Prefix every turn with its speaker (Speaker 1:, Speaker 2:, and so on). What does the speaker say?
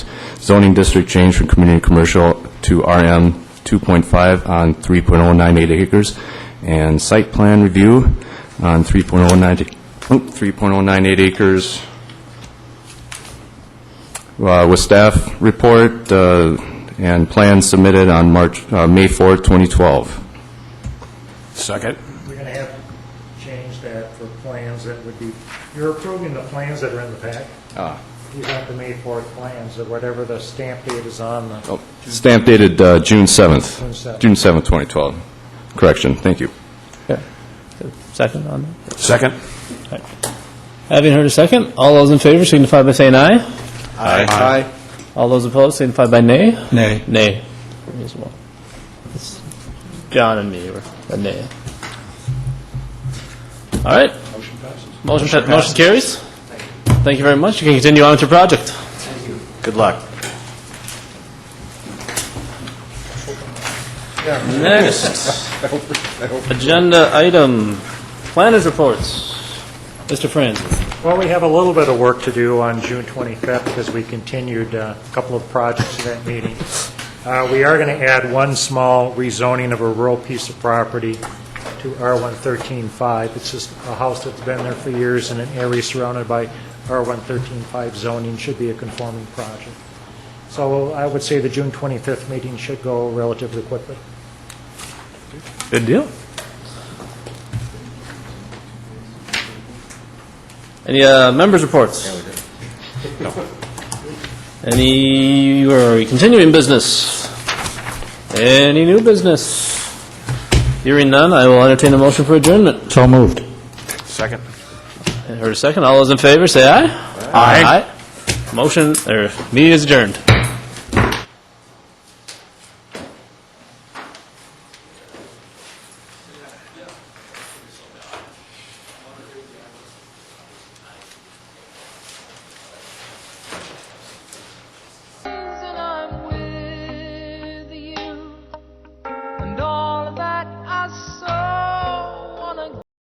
Speaker 1: zoning district change from community commercial to RM 2.5 on 3.098 acres, and site plan review on 3.090 oh, 3.098 acres. Uh, With staff report uh, and plans submitted on March, uh, May 4, 2012.
Speaker 2: Second.
Speaker 3: We're going to have to change that for plans that would be, you're approving the plans that are in the pack. You have the May 4th plans, or whatever the stamp date is on the,
Speaker 1: Stamp dated uh, June 7th.
Speaker 3: 7th.
Speaker 1: June 7th, 2012. Correction, thank you.
Speaker 4: Second on that.
Speaker 2: Second.
Speaker 4: Having heard a second, all those in favor signify by saying aye.
Speaker 2: Aye.
Speaker 4: All those opposed signify by nay.
Speaker 5: Nay.
Speaker 4: Nay. Me as well. It's John and me were a nay. All right. Motion passes. Motion carries. Thank you very much. You can continue on with your project.
Speaker 2: Good luck.
Speaker 4: Next, agenda item, planners reports. Mr. Franz.
Speaker 3: well, we have a little bit of work to do on June 25th, because we continued uh, a couple of projects to that meeting. Uh, We are going to add one small rezoning of a rural piece of property to R1135. It's just a house that's been there for years in an area surrounded by R1135 zoning, should be a conforming project. So I would say the June 25th meeting should go relatively quickly.
Speaker 4: Good deal. Any uh, members' reports? Any, or continuing business? Any new business? Hearing none, I will entertain a motion for adjournment.
Speaker 5: So moved.
Speaker 2: Second.
Speaker 4: Heard a second, all those in favor, say aye. Aye. Motion, or, er, meeting is adjourned.